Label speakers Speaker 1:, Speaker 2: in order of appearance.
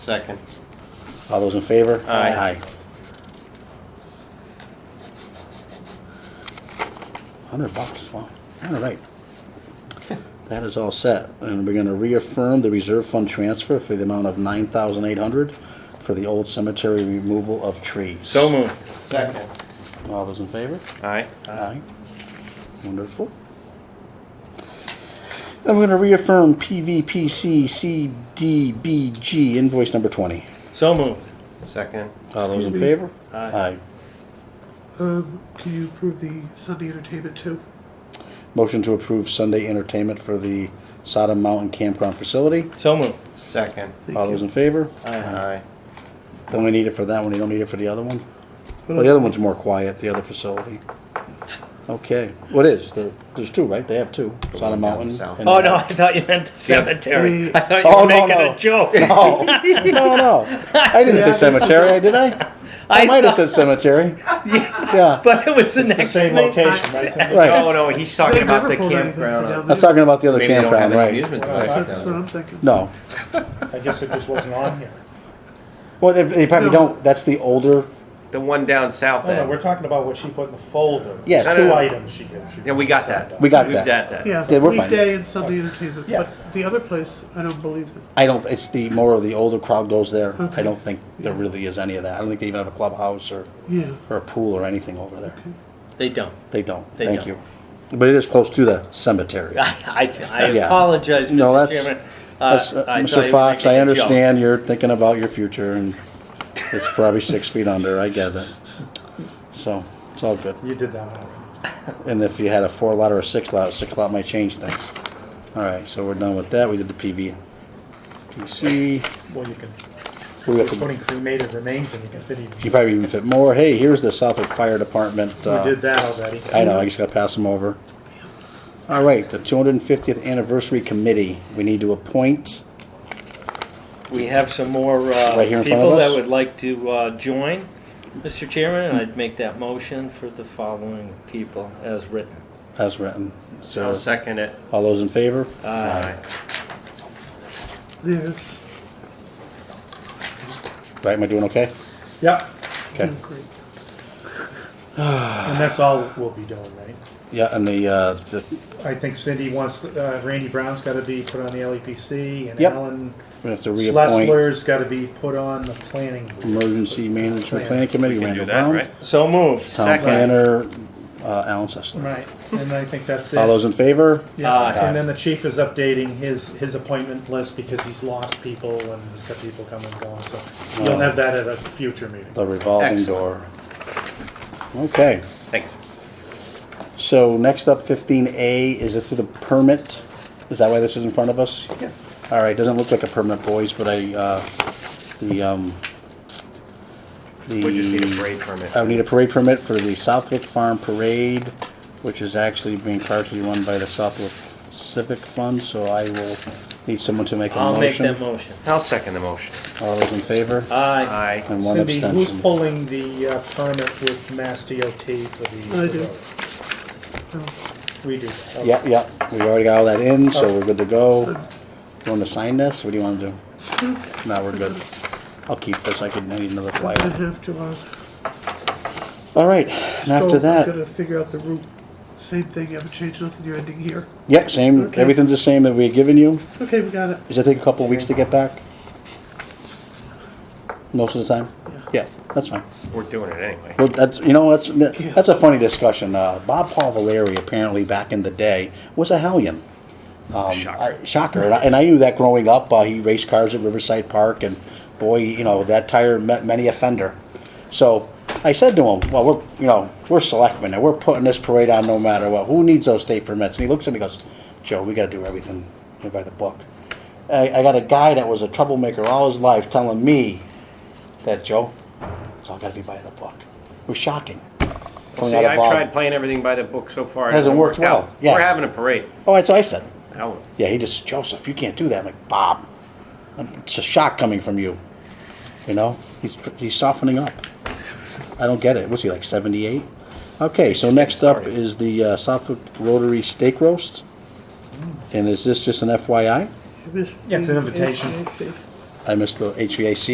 Speaker 1: Second.
Speaker 2: All those in favor?
Speaker 1: Aye.
Speaker 2: Hundred bucks, wow, all right. That is all set, and we're gonna reaffirm the reserve fund transfer for the amount of nine thousand eight hundred for the old cemetery removal of trees.
Speaker 3: So moved.
Speaker 1: Second.
Speaker 2: All those in favor?
Speaker 3: Aye.
Speaker 2: Aye. Wonderful. I'm gonna reaffirm PVPC CDBG invoice number twenty.
Speaker 3: So moved.
Speaker 1: Second.
Speaker 2: All those in
Speaker 4: Excuse me.
Speaker 2: favor?
Speaker 3: Aye.
Speaker 2: Aye.
Speaker 4: Um, can you approve the Sunday entertainment too?
Speaker 2: Motion to approve Sunday entertainment for the Sodom Mountain Campground Facility.
Speaker 3: So moved.
Speaker 1: Second.
Speaker 4: Thank
Speaker 2: All
Speaker 4: you.
Speaker 2: those in favor?
Speaker 1: Aye.
Speaker 2: Don't we need it for that one, you don't need it for the other one?
Speaker 4: What
Speaker 2: Well, the other one's more quiet, the other facility. Okay, what is, there, there's two, right, they have two, Sodom
Speaker 1: one down
Speaker 2: Mountain.
Speaker 1: south.
Speaker 2: and-
Speaker 3: Oh, no, I thought you meant the cemetery. I thought you
Speaker 2: Oh,
Speaker 3: were
Speaker 2: no,
Speaker 3: making
Speaker 2: no.
Speaker 3: a joke.
Speaker 2: No, no, no, I didn't say cemetery, did I? I
Speaker 3: I
Speaker 2: might have
Speaker 3: thought-
Speaker 2: said cemetery, yeah,
Speaker 3: But it was the next
Speaker 5: Same
Speaker 3: thing.
Speaker 5: location, right? Same-
Speaker 1: No,
Speaker 2: right,
Speaker 1: Oh, no, he's talking
Speaker 4: They've
Speaker 1: about the
Speaker 4: never pulled anything
Speaker 1: campground.
Speaker 4: from
Speaker 1: on-
Speaker 4: down
Speaker 2: I was talking about the other
Speaker 1: Maybe they don't have
Speaker 2: campground,
Speaker 1: any
Speaker 2: right,
Speaker 1: amusement
Speaker 5: Well,
Speaker 1: devices
Speaker 4: That's
Speaker 1: down
Speaker 4: what
Speaker 1: there.
Speaker 4: I'm thinking.
Speaker 2: no.
Speaker 5: I guess it just wasn't on here.
Speaker 2: Well, they- they probably
Speaker 4: No.
Speaker 2: don't, that's the older,
Speaker 1: The one down south
Speaker 5: Oh, No, no,
Speaker 1: end.
Speaker 5: we're talking about what she put in the folder.
Speaker 2: Yeah,
Speaker 5: There's
Speaker 1: two-
Speaker 5: Two items she gave. She
Speaker 1: Yeah, we got
Speaker 5: signed
Speaker 1: that.
Speaker 5: up.
Speaker 2: we got
Speaker 1: We've
Speaker 2: that.
Speaker 1: got that.
Speaker 4: Yeah,
Speaker 2: Yeah, we're fine.
Speaker 4: weekday and Sunday entertainment,
Speaker 2: Yeah.
Speaker 4: but the other place, I don't believe it.
Speaker 2: I don't, it's the, more of the older crowd goes there. I
Speaker 4: Okay.
Speaker 2: don't think there really is any of that. I don't think they even have a clubhouse or,
Speaker 4: Yeah,
Speaker 2: or a pool or anything over there.
Speaker 3: They don't.
Speaker 2: They don't,
Speaker 3: They
Speaker 2: thank
Speaker 3: don't.
Speaker 2: you. But it is close to the cemetery.
Speaker 3: I, I, I
Speaker 2: Yeah.
Speaker 3: apologize, Mr.
Speaker 2: No, that's,
Speaker 3: Chairman. Uh,
Speaker 2: that's, uh,
Speaker 3: I thought you
Speaker 2: Mr.
Speaker 3: were
Speaker 2: Fox,
Speaker 3: making
Speaker 2: I
Speaker 3: a joke.
Speaker 2: understand you're thinking about your future and it's probably six feet under, I get it. So, it's all good.
Speaker 5: uh, You did that one already.
Speaker 2: And if you had a four lot or a six lot, a six lot might change things. All right, so we're done with that. We did the PV. PC,
Speaker 5: Well, you can,
Speaker 2: we have
Speaker 5: you're
Speaker 2: to
Speaker 5: putting cremated remains and you can fit even,
Speaker 2: You probably even fit more. Hey, here's the Southwick Fire Department. uh,
Speaker 5: we did that already.
Speaker 2: I know, I just gotta pass them over. All right, the two hundred and fiftieth anniversary committee, we need to appoint,
Speaker 3: We have some more uh,
Speaker 2: Right here in front
Speaker 3: people
Speaker 2: of us?
Speaker 3: that would like to uh, join, Mr. Chairman, and I'd make that motion for the following people as written.
Speaker 2: as written.
Speaker 1: I'll
Speaker 2: So,
Speaker 1: second it.
Speaker 2: all those in favor?
Speaker 5: Uh.
Speaker 1: Aye.
Speaker 4: there's,
Speaker 2: Right, am I doing okay?
Speaker 5: Yep,
Speaker 2: Okay,
Speaker 5: Hmm.
Speaker 4: great.
Speaker 5: and that's all we'll be doing, right?
Speaker 2: yeah, and the, uh, the,
Speaker 5: I think Cindy wants, uh, Randy Brown's gotta be put on the LEPC and
Speaker 2: Yep.
Speaker 5: Alan
Speaker 2: we have to reappoint
Speaker 5: Schlesler's gotta be put on the planning. board.
Speaker 2: emergency management planning committee,
Speaker 1: You can do
Speaker 2: Randall
Speaker 1: that,
Speaker 2: Brown.
Speaker 1: right?
Speaker 3: So moved.
Speaker 2: Town
Speaker 1: Second.
Speaker 2: planner, uh, Alan Sessler.
Speaker 5: Right, and I think that's it.
Speaker 2: All those in favor?
Speaker 3: Aye.
Speaker 5: Yeah, Uh, and then the chief is updating his, his appointment list because he's lost people and he's got people coming and going, so you'll have that at a future meeting.
Speaker 2: The revolving door.
Speaker 1: Excellent.
Speaker 2: Okay.
Speaker 1: Thanks.
Speaker 2: So next up, fifteen A, is this is a permit? Is that why this is in front of us?
Speaker 5: Yeah.
Speaker 2: All right, doesn't look like a permit, boys, but I, uh, the, um, the.
Speaker 1: We just need a parade permit.
Speaker 2: I would need a parade permit for the Southwick Farm Parade, which is actually being partially run by the Southwick Civic Fund, so I will need someone to make a
Speaker 3: I'll make Uh,
Speaker 2: motion.
Speaker 3: that motion.
Speaker 1: I'll second the motion.
Speaker 2: All those in favor?
Speaker 3: Aye.
Speaker 1: Aye.
Speaker 2: And one
Speaker 5: Cindy, who's
Speaker 2: abstention.
Speaker 5: pulling the uh, permit with Mass DOT for the?
Speaker 4: I do. No,
Speaker 5: We do. that, okay.
Speaker 2: Yep, yep, we already got all that in, so we're good to go. You wanna sign this, what do you wanna do? No, we're good. I'll keep this, I could, I need another
Speaker 4: I
Speaker 2: flyer.
Speaker 4: have to, uh,
Speaker 2: All right, and
Speaker 4: so
Speaker 2: after
Speaker 4: I'm
Speaker 2: that,
Speaker 4: gonna figure out the route, same thing, you haven't changed nothing, you're ending here.
Speaker 2: yep, same,
Speaker 4: Okay.
Speaker 2: everything's the same that we had given you.
Speaker 4: Okay, we got it.
Speaker 2: Does it take a couple of weeks to get back? Most of the time? Yeah, that's fine.
Speaker 1: We're doing it anyway.
Speaker 2: Well, that's, you know, that's, that's a funny discussion. Uh, Bob Paul Valeri, apparently back in the day, was a hellion. Um,
Speaker 1: Shocker.
Speaker 2: I- Shocker. And I, and I knew that growing up. Uh, he raced cars at Riverside Park, and boy, you know, that tire met many a fender. So I said to him, well, we're, you know, we're selectmen, and we're putting this parade on no matter what. Who needs those state permits? And he looks at me and goes, Joe, we got to do everything by the book. I, I got a guy that was a troublemaker all his life telling me that, Joe, it's all got to be by the book. It was shocking. Coming
Speaker 1: See,
Speaker 2: out of
Speaker 1: I've
Speaker 2: Bob.
Speaker 1: tried playing everything by the book so far. It
Speaker 2: Hasn't worked
Speaker 1: out.
Speaker 2: well, yeah.
Speaker 1: We're having a parade.
Speaker 2: Oh, that's what I said.
Speaker 1: Hell,
Speaker 2: Yeah, he just Joseph, you can't do that. I'm like Bob, I'm- it's a shock coming from you. You know, he's he's softening up. I don't get it. What's he like, 78? Okay, so next up is the uh, Southwick Rotary Steak Roast, and is this just an FYI?
Speaker 4: I missed
Speaker 5: Yeah, it's
Speaker 4: the
Speaker 5: an invitation.
Speaker 4: HVAC.
Speaker 2: I missed the HVAC